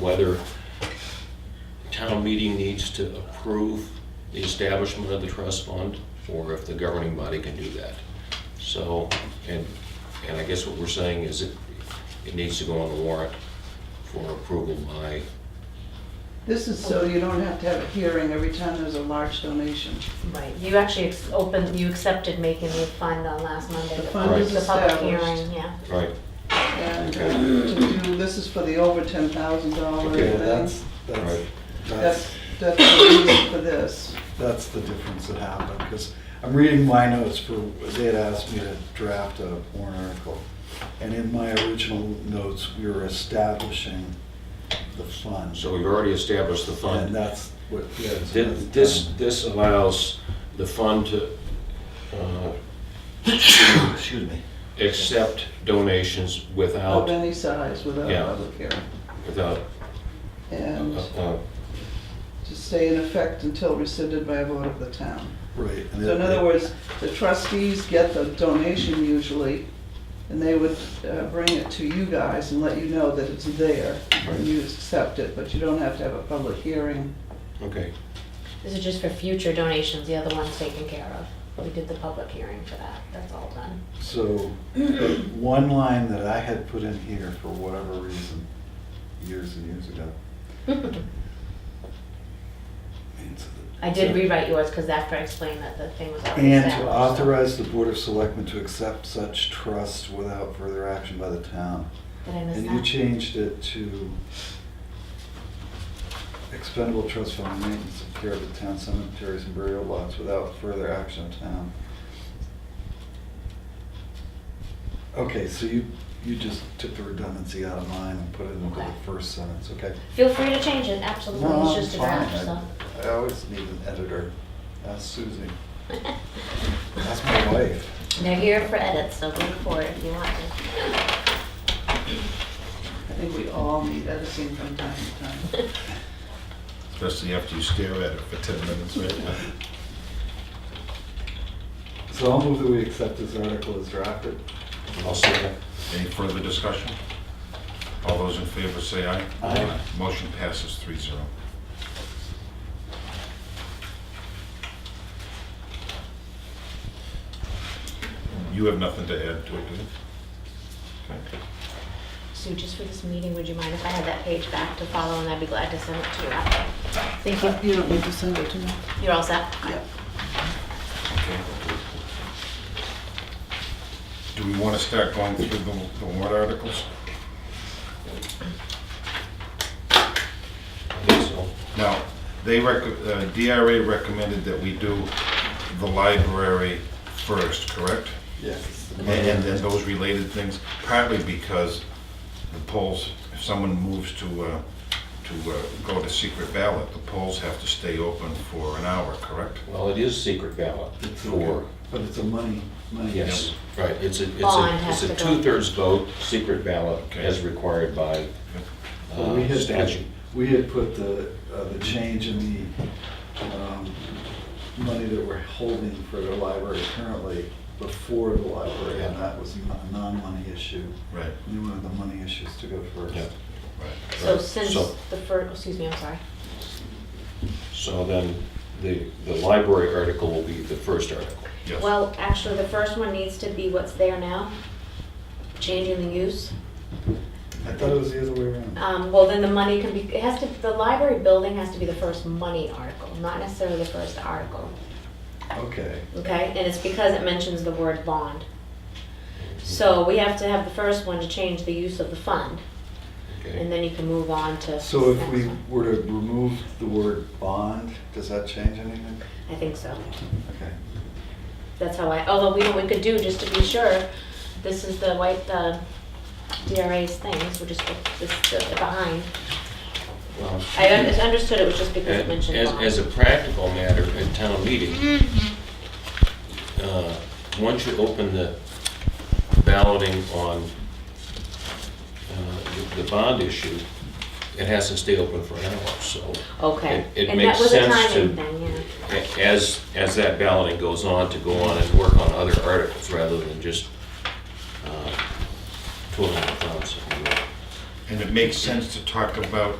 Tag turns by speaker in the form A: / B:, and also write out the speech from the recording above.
A: whether town meeting needs to approve the establishment of the trust fund, or if the governing body can do that. So, and, and I guess what we're saying is it, it needs to go on the warrant for approval by,
B: This is so you don't have to have a hearing every time there's a large donation.
C: Right, you actually ex- opened, you accepted making the fund on last Monday.
B: The fund
A: is
C: The public
B: established.
C: hearing, yeah.
A: right,
B: And
A: Okay.
B: uh, to do, this is for the over ten thousand dollar
A: Okay,
D: Yeah,
B: thing.
D: that's, that's,
A: right,
B: That's,
D: that's,
B: that's the reason for this.
D: that's the difference that happened, because I'm reading my notes for, they had asked me to draft a warrant article. And in my original notes, we were establishing the fund.
A: so we've already established the fund.
D: And that's what. yeah, so
A: Thi-
D: that's
A: This,
D: done.
A: this allows the fund to, uh,
E: Excuse me.
A: accept donations
B: Of
A: without,
B: any size without a
A: Yeah.
B: public hearing.
A: without, uh,
B: And
A: uh,
B: to stay in effect until rescinded by a vote of the town.
D: Right. and
B: So in
D: it-
B: other words, the trustees get the donation usually, and they would uh, bring it to you guys and let you know that it's there, and you accept it, but you don't have to have a public hearing.
A: okay,
C: This is just for future donations, the other one's taken care of. We did the public hearing for that, that's all done.
D: So, but one line that I had put in here for whatever reason, years and years ago. means that
C: I did rewrite yours because after I explained that the thing was already
D: And to
C: established, so
D: authorize the Board of Selectmen to accept such trust without further action by the town.
C: Did I miss
D: And you
C: that?
D: changed it to expendable trust fund maintenance of care of the town cemeteries and burial lots without further action of town. Okay, so you, you just took the redundancy out of mine and put it into the
C: Okay.
D: first sentence, okay?
C: Feel free to change it, absolutely,
D: No,
C: it's
D: I'm
C: just a
D: fine.
C: draft, so.
D: I- I always need an editor. That's Susie. That's my wife.
C: They're here for edits, so look for it if you want to.
B: I think we all need editing from time to time.
F: Especially after you stare at it for 10 minutes, right?
D: So I'll move that we accept this article as drafted.
A: I'll second.
F: Any further discussion? All those in favor say aye.
D: Aye.
F: Motion passes three zero. You have nothing to add to it, do you? Okay.
C: Sue, just for this meeting, would you mind if I had that page back to follow, and I'd be glad to send it to you after? Thank you.
B: You don't need to send it to me.
C: You're all set?
B: Yeah.
F: Okay. Do we want to start going through the the warrant articles?
A: I think so.
F: Now, they rec, uh, DRA recommended that we do the library first, correct?
D: Yes.
F: And and then those related things, partly because the polls, if someone moves to, uh, to uh, go to secret ballot, the polls have to stay open for an hour, correct?
A: Well, it is secret ballot for,
D: But it's a money, money.
A: yes, right, it's a, it's
C: Bond
A: a,
C: has
A: it's a
C: to go.
A: two-thirds vote, secret ballot
F: Okay.
A: as required by
D: So we
A: uh,
D: had-
A: statute.
D: We had put the, uh, the change in the um, money that we're holding for the library currently before the library, and that was a non-money issue.
F: Right.
D: We wanted the money issues to go
A: Yeah.
D: first.
F: Right.
C: So
A: Right.
C: since
A: Uh, So-
C: the first, excuse me, I'm sorry.
A: So then, the, the library article will be the first article.
F: Yes.
C: Well, actually, the first one needs to be what's there now, changing the use.
D: I thought it was the other way around.
C: Um, well, then the money can be, it has to, the library building has to be the first money article, not necessarily the first article,
D: Okay.
C: okay? And it's because it mentions the word bond.
A: Mm-hmm.
C: So we have to have the first one to change the use of the fund, and
A: Okay.
C: then you can move on to.
D: So if
C: next
D: we
C: one.
D: were to remove the word bond, does that change anything?
C: I think so.
D: Okay.
C: That's how I, although we, we could do, just to be sure, this is the white, uh, DRA's things, we're just, this, the behind.
A: Well,
C: I un- I understood it was just because it
A: As,
C: mentioned bond.
A: as a practical matter, at town meeting,
C: Mm-hmm.
A: uh, once you open the balloting on uh, the- the bond issue, it has to stay open for an hour, so.
C: Okay,
A: it- it
C: and
A: makes
C: that was a
A: sense
C: timing
A: to-
C: thing, yeah.
A: a- As, as that balloting goes on, to go on and work on other articles rather than just uh, twiddling the thumbs, if you will.
F: And it makes sense to talk about